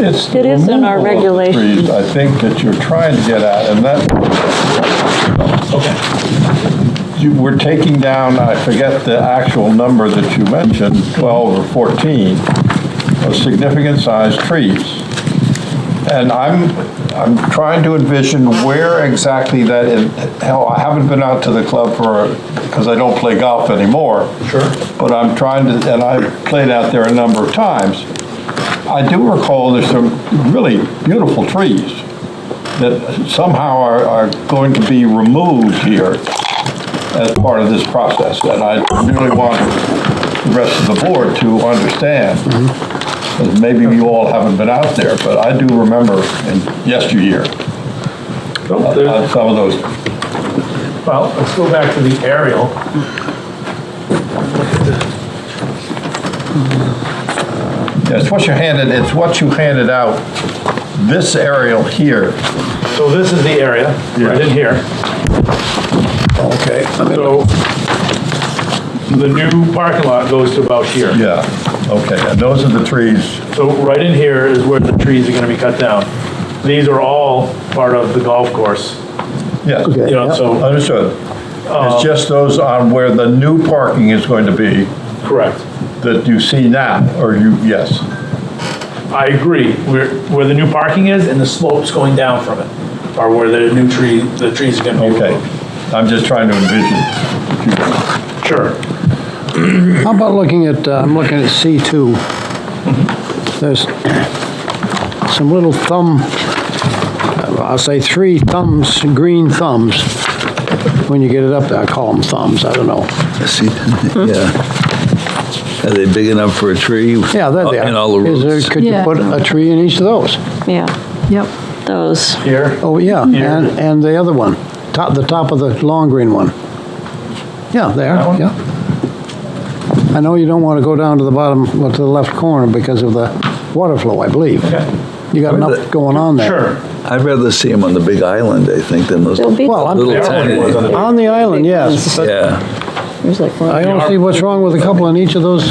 It's It is in removal our of the regulations. trees, I think that you're trying to get at, and that, Okay, you, we're taking down, I forget the actual number that you mentioned, 12 or 14, of significant sized trees. And I'm, I'm trying to envision where exactly that is. Hell, I haven't been out to the club for, because I don't play golf anymore. Sure. But I'm trying to, and I've played out there a number of times. I do recall there's some really beautiful trees that somehow are, are going to be removed here as part of this process. And I really want the rest of the board to understand, because maybe you all haven't been out there, but I do remember in yesteryear, Nope, uh, there's- some of those well, let's go back to the aerial. Yeah, It's what you handed, it's what you handed out, this aerial here. So this is the area, right in here. Okay, So the new parking lot goes to about here. Yeah, okay, and those are the trees. So right in here is where the trees are gonna be cut down. These are all part of the golf course, Yes, you know, so, understood. It's just those on where the new parking is going to be correct. that you see now, or you, yes. I agree, where, where the new parking is and the slopes going down from it are where the new tree, the trees are gonna be Okay, removed. I'm just trying to envision. Sure. how about looking at, uh, I'm looking at C2. There's some little thumb, I'll say three thumbs, green thumbs. When you get it up there, I call them thumbs, I don't know. See, yeah. Are they big enough for a tree? Yeah, they're there. In Oh, all the Is there- roots? Could you Yeah. put a tree in each of those? yeah, Yep. those. Here, Oh, yeah, Here. and, and the other one, top, the top of the long green one. Yeah, there, That one? yeah. I know you don't want to go down to the bottom, well, to the left corner because of the water flow, I believe. Okay. You got enough going on there. sure. I'd rather see them on the big island, I think, than those They'll be, Well, I'm- little There are only ones on tiny. the- On the island, yes, but Yeah, there's like I one. don't see what's wrong with a couple in each of those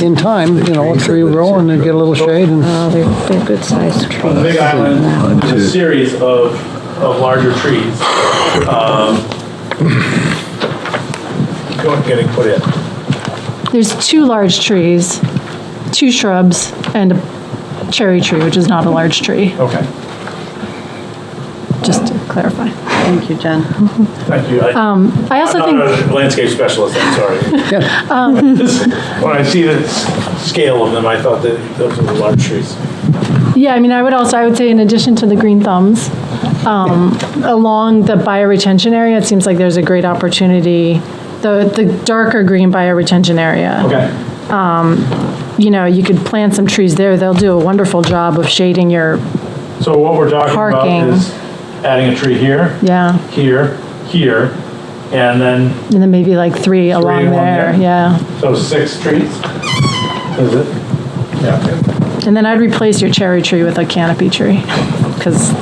in time, you know, a three row and then get a little shade and, Oh, they're, they're good sized The Big trees. Island is a series of, of larger trees. um, Going, getting put in. There's two large trees, two shrubs, and a cherry tree, which is not a large tree, Okay. just to clarify. Thank you, Jen. Thank you. I- Um, I I'm also think, Um, not a landscape specialist, I'm sorry. When I see the s- scale of them, I thought that those were the large trees. yeah, I mean, I would also, I would say in addition to the green thumbs, um, along the bioretention area, it seems like there's a great opportunity, the, the darker green bioretention area. Okay. You know, you could plant some trees there. They'll do a wonderful job of shading your, So what we're talking Parking. about is adding a tree here, yeah, here, here, and then, and then maybe like three along along there, there. yeah. so six trees? Is it? Yeah. And then I'd replace your cherry tree with a canopy tree, because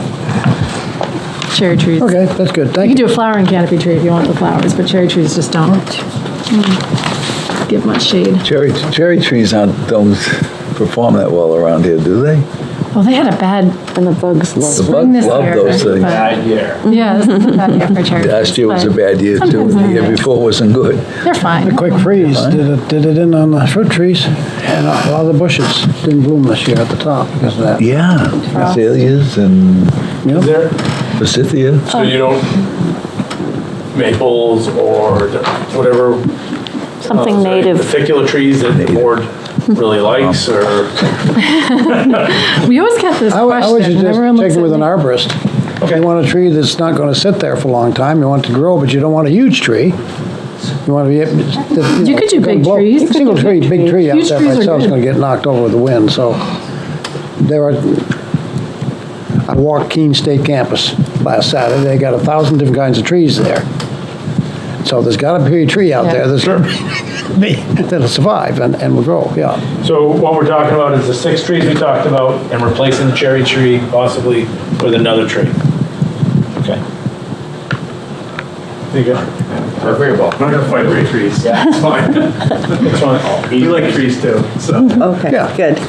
cherry trees, you okay, that's good, can thank you. do a flowering canopy tree if you want the flowers, but cherry trees just don't Mm. give much shade. cherry, cherry trees aren't, don't perform that well around here, do they? Well, they had a bad And the bugs love The spring bugs this love year. those things. but- Bad year. Yeah, this is a bad year for cherry trees. Last year was a but bad year too, sometimes and the year they're nice. before wasn't good. They're fine. Quick freeze, did it, did it in on the fruit trees and a lot of the bushes didn't bloom this year at the top because of that. Yeah, azaleas and Is there, forsythia. So you don't, maples or whatever. Something uh, Particular trees that the board really likes or, We always get this I would- I would question. suggest Everyone looks taking at with an me. arborist. You want a tree that's not going to sit there for a long time, you want it to grow, but you don't want a huge tree. You want to be, able to- You know, could do it's gonna big blow- trees. You could Single do tree, big big tree out trees. there Huge by trees are itself is good. going to get knocked over with the wind, so there are, I walked Keene State Campus last Saturday, they got a thousand different kinds of trees there. So there's got to be a tree out there that's, that'll survive and, and will grow, yeah. so what we're talking about is the six trees we talked about and replacing the cherry tree possibly with another tree. Okay. There you go. Don't worry about it. I'm not gonna fight over trees. Yeah. It's fine. It's fine. You like trees too, so. Okay, Yeah. good.